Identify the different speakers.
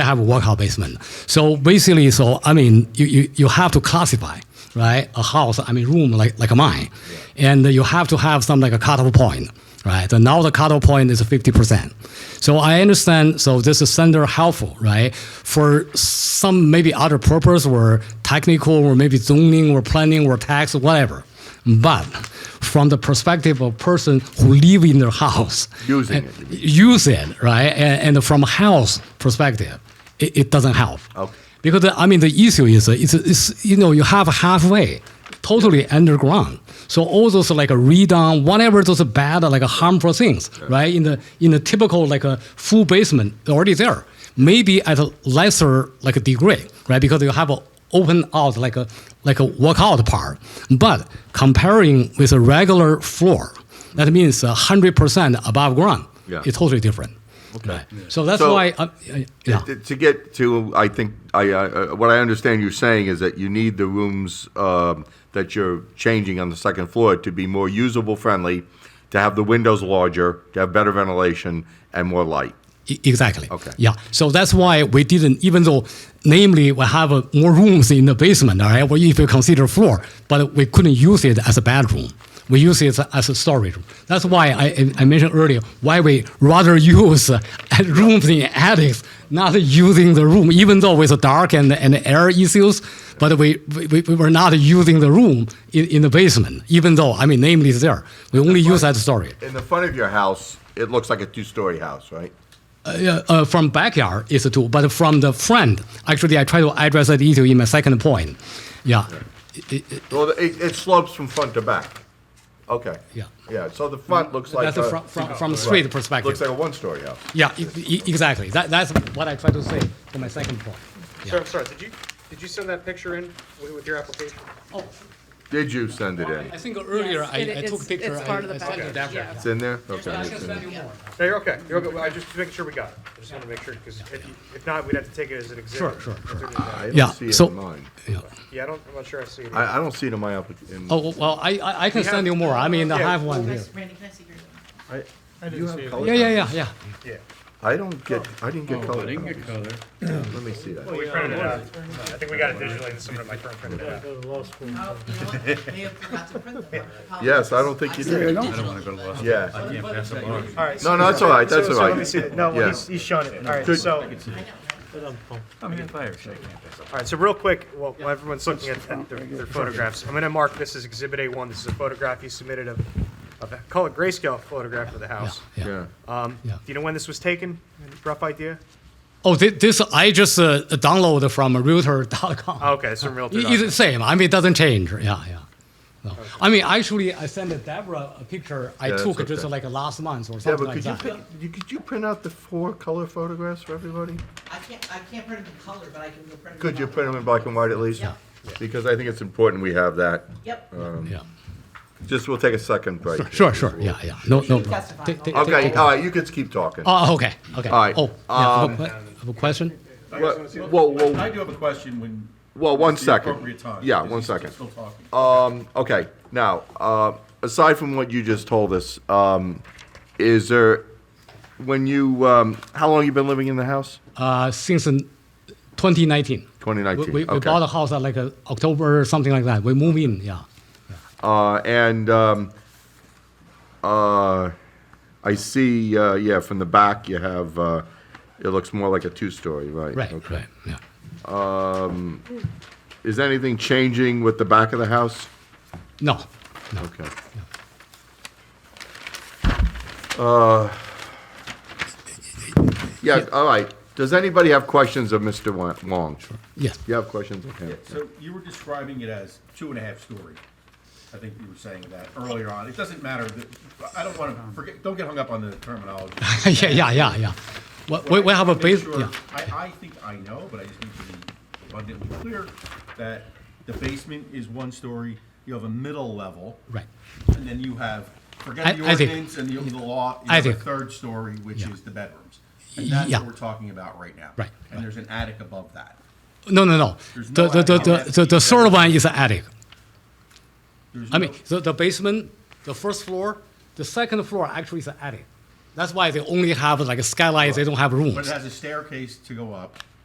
Speaker 1: have a workout basement. So basically, so I mean, you, you, you have to classify, right? A house, I mean, room like, like mine. And you have to have some like a cutoff point, right? And now the cutoff point is 50%. So I understand, so this is center helpful, right? For some maybe other purpose or technical or maybe zoning or planning or tax, whatever. But from the perspective of person who live in their house,
Speaker 2: Using
Speaker 1: and-
Speaker 2: it,
Speaker 1: use it, right? And, and from a health perspective, it, it doesn't help.
Speaker 2: Okay.
Speaker 1: Because I mean, the issue is uh, it's, it's you know you have halfway, totally underground. So all those like a redone, whatever those bad like harmful things, right? In the in the typical like a full basement already there, maybe at a lesser like a degree, right? Because you have a open out like a like a workout part. But comparing with a regular floor, that means hundred percent above ground.
Speaker 2: Yeah.
Speaker 1: It's totally different. Okay. So that's
Speaker 2: So-
Speaker 1: why. Uh, yeah.
Speaker 2: To- To get to, I think, I, uh, what I understand you're saying is that you need the rooms um, that you're changing on the second floor to be more usable friendly, to have the windows larger, to have better ventilation and more light.
Speaker 1: E- Exactly.
Speaker 2: Okay.
Speaker 1: Yeah. So that's why we didn't, even though, namely, we have uh, more rooms in the basement, all right, well, if you consider floor, but we couldn't use it as a bedroom. We use it as a storage room. That's why I, I- I mentioned earlier why we rather use uh, rooms in attics, not using the room, even though with the dark and, and air issues, but we, we, we were not using the room in, in the basement, even though, I mean, namely, it's there. We only use that storage.
Speaker 2: In the front of your house, it looks like a two-story house, right?
Speaker 1: uh, uh, from backyard is a tool, but from the front, actually, I try to address that issue in my second point. Yeah,
Speaker 2: Well, it, it slopes from front to back. Okay.
Speaker 1: Yeah.
Speaker 2: Yeah, so the front looks like
Speaker 1: that's a
Speaker 2: a-
Speaker 1: from, from, from
Speaker 2: Right.
Speaker 1: street perspective.
Speaker 2: Looks like a one-story house.
Speaker 1: yeah, e- e- exactly. That, that's what I try to say for my second point.
Speaker 3: Sir, I'm sorry, did you, did you send that picture in wi- with your application?
Speaker 1: Oh,
Speaker 2: Did you send it in?
Speaker 1: I think earlier
Speaker 4: Yes,
Speaker 1: I,
Speaker 4: it-
Speaker 1: I took
Speaker 4: it's-
Speaker 1: picture.
Speaker 4: it's part
Speaker 1: I,
Speaker 4: of the
Speaker 1: I sent
Speaker 4: package,
Speaker 1: it after.
Speaker 4: yeah.
Speaker 2: It's in there? Okay.
Speaker 1: I
Speaker 2: it's
Speaker 1: can
Speaker 2: in
Speaker 1: send
Speaker 2: there.
Speaker 1: you more.
Speaker 3: No, you're okay, you're okay, I just was making sure we got it, I just wanted to make sure, because if, you- if not, we'd have to take it as an exhibit.
Speaker 1: Sure, sure, sure.
Speaker 2: I
Speaker 1: Yeah,
Speaker 2: don't see it
Speaker 1: so-
Speaker 2: in mine.
Speaker 1: Yeah.
Speaker 3: Yeah, I don't, I'm not sure I see it.
Speaker 2: I, I don't see it in my application.
Speaker 1: Oh well, I, I, I can
Speaker 3: have-
Speaker 1: send you more. I mean, I
Speaker 3: Yeah.
Speaker 1: have one here.
Speaker 4: Randy, can I see your one?
Speaker 2: I,
Speaker 3: didn't
Speaker 2: you
Speaker 3: see
Speaker 2: have
Speaker 3: it.
Speaker 2: color?
Speaker 1: Yeah, yeah, yeah, yeah.
Speaker 3: Yeah.
Speaker 2: I don't get, I didn't get color.
Speaker 5: Oh, didn't
Speaker 2: copies.
Speaker 5: get color.
Speaker 2: Let me see that.
Speaker 3: We printed it out, I think we got it digitally, and someone at my firm printed it out.
Speaker 4: Oh, you know what? May have forgot to print them.
Speaker 2: Yes, I don't think you did.
Speaker 5: I don't want to go to law. school.
Speaker 2: Yeah.
Speaker 5: I can't pass up on.
Speaker 3: All right.
Speaker 2: No, no, it's all right, that's
Speaker 3: So-
Speaker 2: all
Speaker 3: so
Speaker 2: right.
Speaker 3: let me see it. No,
Speaker 2: Yeah.
Speaker 3: well, he's, he's shown it. All right,
Speaker 2: Good.
Speaker 3: so, all
Speaker 5: I'm in fire, so I can't pass up.
Speaker 3: right, so real quick, while while everyone's looking at at their their photographs, I'm going to mark this as Exhibit A1. This is a photograph you submitted of, of, a- call it grayscale photograph of the house.
Speaker 1: Yeah.
Speaker 2: Yeah.
Speaker 3: Um, Do
Speaker 1: Yeah.
Speaker 3: you know when this was taken? Any Rough idea?
Speaker 1: Oh, thi- this I just uh, downloaded from Realtor.com.
Speaker 3: Oh, Okay, it's from Realtor.
Speaker 1: It- It's the same. I mean, it doesn't change. Yeah, yeah. No. I mean, actually, I sent Deborah a picture I
Speaker 2: Yeah, that's
Speaker 1: took
Speaker 2: okay.
Speaker 1: just like last month or
Speaker 2: Yeah,
Speaker 1: something
Speaker 2: but
Speaker 1: like
Speaker 2: could you,
Speaker 1: that.
Speaker 2: print- you- could you print out the four color photographs for everybody?
Speaker 4: I can't, I can't print them in color, but I can go print them.
Speaker 2: Could you
Speaker 4: out.
Speaker 2: print them in black and white at least?
Speaker 4: Yeah.
Speaker 2: Because I think it's important we have that.
Speaker 4: Yep.
Speaker 1: yeah.
Speaker 2: Just, we'll take a second break.
Speaker 1: Sure, sure. Yeah, yeah. No, no
Speaker 4: can
Speaker 1: problem.
Speaker 4: testify.
Speaker 1: Ta- ta- ta-
Speaker 2: Okay,
Speaker 1: ta-
Speaker 2: all right, you can keep talking.
Speaker 1: Oh, okay. Okay.
Speaker 2: All right,
Speaker 1: Oh,
Speaker 2: Um,
Speaker 1: yeah. I have a que- I have a question.
Speaker 2: Well, well,
Speaker 5: I
Speaker 2: well,
Speaker 5: do have a question when.
Speaker 2: well, one
Speaker 5: it's the
Speaker 2: second.
Speaker 5: Appropriate time.
Speaker 2: Yeah,
Speaker 5: Is
Speaker 2: one
Speaker 5: he still-
Speaker 2: second.
Speaker 5: Still talking.
Speaker 2: Um, okay, now, uh, aside from what you just told us, um, is there, when you, um, how long you been living in the house?
Speaker 1: Uh, since in 2019. We,
Speaker 2: 2019,
Speaker 1: we, we
Speaker 2: okay.
Speaker 1: bought a house at like uh, October or something like that. We move in, yeah.
Speaker 2: Uh, and um, uh, I see, uh, yeah, from the back you have, uh, it looks more like a two-story, right?
Speaker 1: Right,
Speaker 2: Okay.
Speaker 1: right, yeah.
Speaker 2: Is anything changing with the back of the house?
Speaker 1: No,
Speaker 2: Okay. Uh, yeah, all right. Does anybody have questions of Mr. Wa- Wong?
Speaker 1: yes.
Speaker 2: You have questions of him?
Speaker 5: So you were describing it as two and a half story. I think you were saying that earlier on. It doesn't matter. that- I don't want to forget, don't get hung up on the terminology.
Speaker 1: yeah, yeah, yeah, yeah. We, we, we have a
Speaker 5: Make
Speaker 1: base,
Speaker 5: sure-
Speaker 1: yeah.
Speaker 5: I, I think I know, but I just need to be abundantly clear that the basement is one story, you have a middle level.
Speaker 1: Right.
Speaker 5: And then you have,
Speaker 1: I-
Speaker 5: forget the
Speaker 1: I think-
Speaker 5: ordinance and the the law, you
Speaker 1: I
Speaker 5: have a
Speaker 1: think-
Speaker 5: third story, which
Speaker 1: Yeah.
Speaker 5: is the bedrooms. And that's
Speaker 1: Yeah.
Speaker 5: what we're talking about right now.
Speaker 1: Right, right.
Speaker 5: And there's an attic above that.
Speaker 1: No, no, no.
Speaker 5: There's
Speaker 1: The,
Speaker 5: no
Speaker 1: the, the,
Speaker 5: attic.
Speaker 1: the, the, the third one is an attic.
Speaker 5: There's
Speaker 1: I
Speaker 5: no-
Speaker 1: mean, the, the basement, the first floor, the second floor actually is an attic. That's why they only have like a skylight. They don't have
Speaker 5: But it
Speaker 1: rooms.
Speaker 5: has a staircase to go up.